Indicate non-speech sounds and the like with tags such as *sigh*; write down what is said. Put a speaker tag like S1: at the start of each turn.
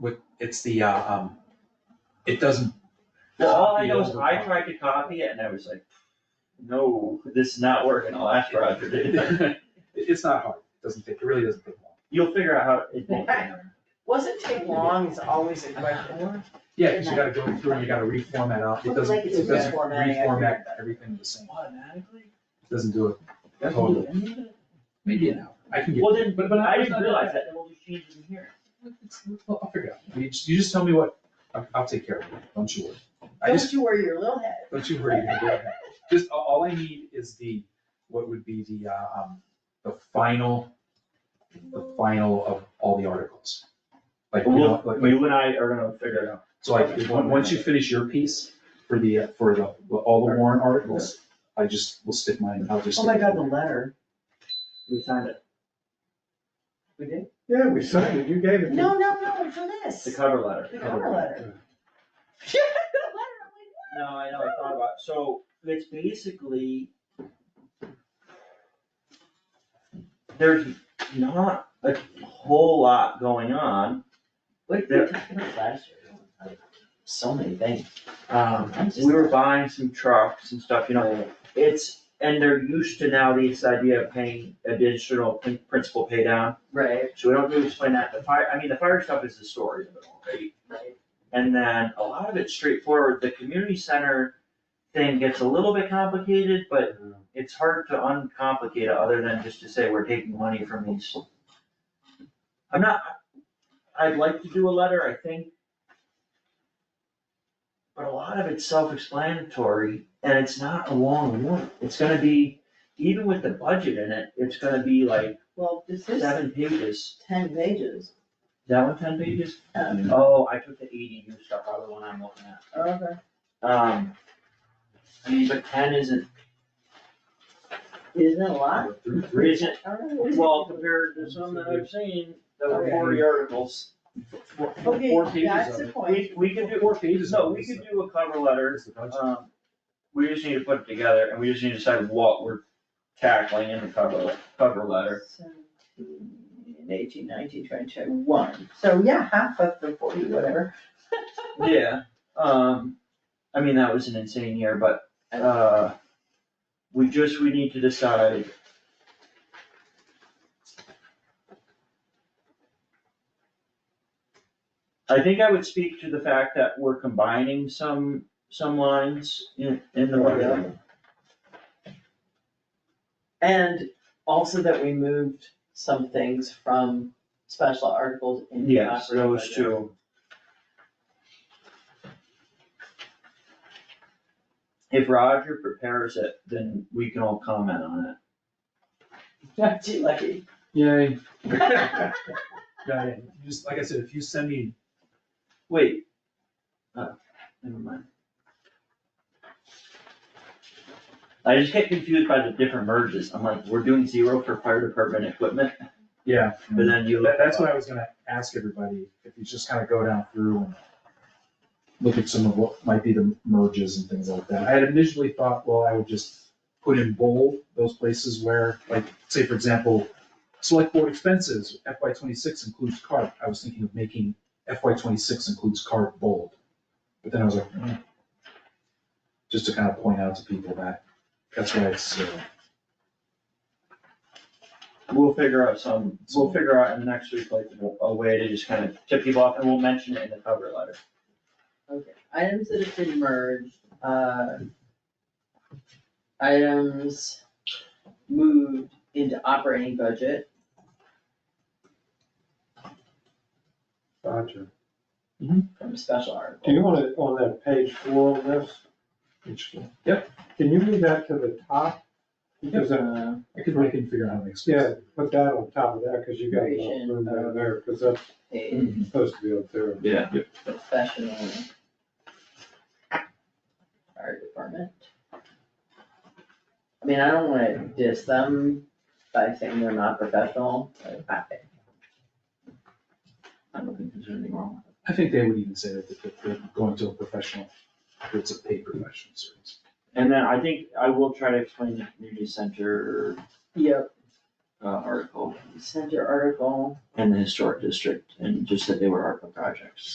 S1: It's the, uh, um, it doesn't.
S2: Well, all I
S1: copy
S2: know is
S1: over.
S2: I tried to copy it and I was like, no, this is not working, I'll ask
S1: *laughs*
S2: Roger *laughs* to.
S1: It- It's not hard, it doesn't take, it really doesn't take long.
S2: You'll figure out how it won't.
S3: Wasn't take long is always a question.
S1: Yeah, cause you gotta go through and you gotta reformat out, it
S3: Looks
S1: doesn't,
S3: like it's
S1: it doesn't
S3: reformatting everything.
S1: reformat everything the same,
S2: Automatically?
S1: It doesn't do it totally. Maybe an hour, I can get.
S2: Well, then,
S1: but-
S2: but
S1: but
S2: I
S1: it's
S2: didn't
S1: not-
S2: realize that, then we'll just change it in here.
S1: It's- I'll I'll figure it out, you just, you just tell me what, I'll, I'll take care of it, don't you worry. I just,
S3: Don't you worry your little head.
S1: don't you worry, you're gonna do it. just, a- all I need is the, what would be the, uh, um, the final, the final of all the articles. Like, you know,
S2: Well,
S1: like,
S2: you and I are gonna figure it out.
S1: So I, if- on- once you finish your piece for the, for the, all the warrant articles, I just will stick mine, I'll just.
S3: Oh my god, the letter.
S2: We signed it,
S3: We did?
S4: Yeah, we signed it, you gave it to
S3: No, no, no, for this.
S2: the cover letter.
S3: The cover letter. Yeah, the
S2: No, I know, I thought about, it. so it's basically. There's not a whole lot going on,
S3: letter, I'm like, what? What did *laughs* we talk about last year? Like, So many things.
S2: um, we were buying some trucks and stuff, you know, it's, and they're used to now this idea of paying additional prin- principal pay down.
S3: Right,
S2: So we don't really explain that, the fire, I mean, the fire stuff is the story of it all, right?
S3: right.
S2: And then a lot of it's straightforward, the community center thing gets a little bit complicated, but it's hard to uncomplicate it other than just to say we're taking money from these. I'm not, I'd like to do a letter, I think. But a lot of it's self-explanatory and it's not a long one, it's gonna be, even with the budget in it, it's gonna be like
S3: Well, this is
S2: seven pages.
S3: ten pages.
S2: Is That one ten pages?
S3: Um,
S2: Oh, I took the ADU stuff out of the one I'm looking at.
S3: Okay.
S2: Um, I mean, but ten isn't,
S3: Isn't it a lot?
S1: Through
S2: three
S1: three,
S2: isn't,
S3: I don't know.
S2: well, compared to some that I've seen, that were
S3: Okay.
S2: forty articles.
S1: four, four
S3: Okay,
S1: pages
S3: that's
S1: of
S3: the
S1: it.
S3: point.
S2: We, we could do,
S1: Four pages
S2: no,
S1: of
S2: we
S1: it.
S2: could do a cover letter,
S1: Here's the budget.
S2: um, we just need to put it together, and we just need to decide what we're tackling in the cover, cover letter.
S3: Seventeen, Eighteen, nineteen, twenty, twenty-one. So yeah, half of the forty, whatever.
S2: Yeah, um, I mean, that was an insane year, but, uh, we just, we need to decide. I think I would speak to the fact that we're combining some, some lines in, in the budget.
S3: And also that we moved some things from special articles into
S2: Yes,
S3: operating
S2: those
S3: budget. *laughs*
S2: two. If Roger prepares it, then we can all comment on it.
S3: Not too lucky.
S1: Yay. *laughs* Yeah, yeah, you just, like I said, if you send me,
S2: Wait. Oh, never mind. I just get confused by the different merges. I'm like, we're doing zero for fire department equipment,
S1: yeah,
S2: but then you.
S1: that, that's what I was gonna ask everybody, if you just kinda go down through and look at some of what might be the merges and things like that. I had initially thought, well, I would just put in bold those places where, like, say for example, select board expenses, FY twenty-six includes card. I was thinking of making FY twenty-six includes card bold. But then I was like, hmm. Just to kind of point out to people that, that's why it's, uh,
S2: We'll figure out some, we'll figure out in the next week, like, a way to just kind of tip people off, and we'll mention it in the cover letter.
S3: Okay, items that have been merged, uh. Items moved into operating budget.
S4: Roger.
S3: from special article.
S4: Do you want to, on that page four of this,
S1: which,
S4: can you move that to the top? Because, uh,
S3: Uh,
S1: I could, I can figure out how to express it.
S4: yeah, put that on top of that, because you got no room down there, because that's
S3: Uh, a
S4: supposed to be up there.
S2: Yeah.
S3: professional fire department. I mean, I don't wanna diss them by saying they're not professional, but I. I don't think there's anything wrong
S1: I think they would even say that if they're going to a professional, if it's a paid professional service.
S2: And then I think I will try to explain the community center
S3: with it. Yep,
S2: uh, article
S3: send your article.
S2: and the historic district, and just that they were ARPA projects.